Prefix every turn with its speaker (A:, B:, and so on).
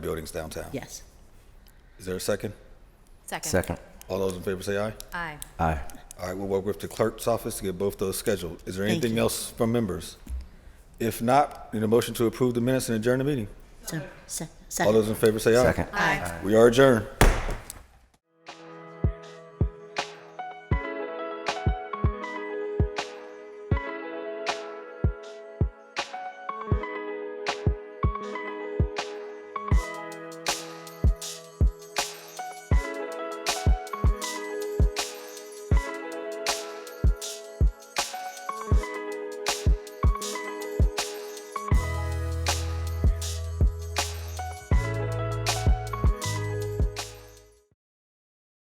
A: buildings downtown.
B: Yes.
A: Is there a second?
C: Second.
D: Second.
A: All those in favor say aye.
C: Aye.
D: Aye.
A: All right, we'll work with the clerk's office to get both those scheduled. Is there
B: Thank
A: anything
B: you.
A: else from members? If not, need a motion to approve the minutes and adjourn the meeting.
B: So, se-
A: All
B: second.
A: those in favor say aye.
D: Second.
C: Aye.
A: We are adjourned.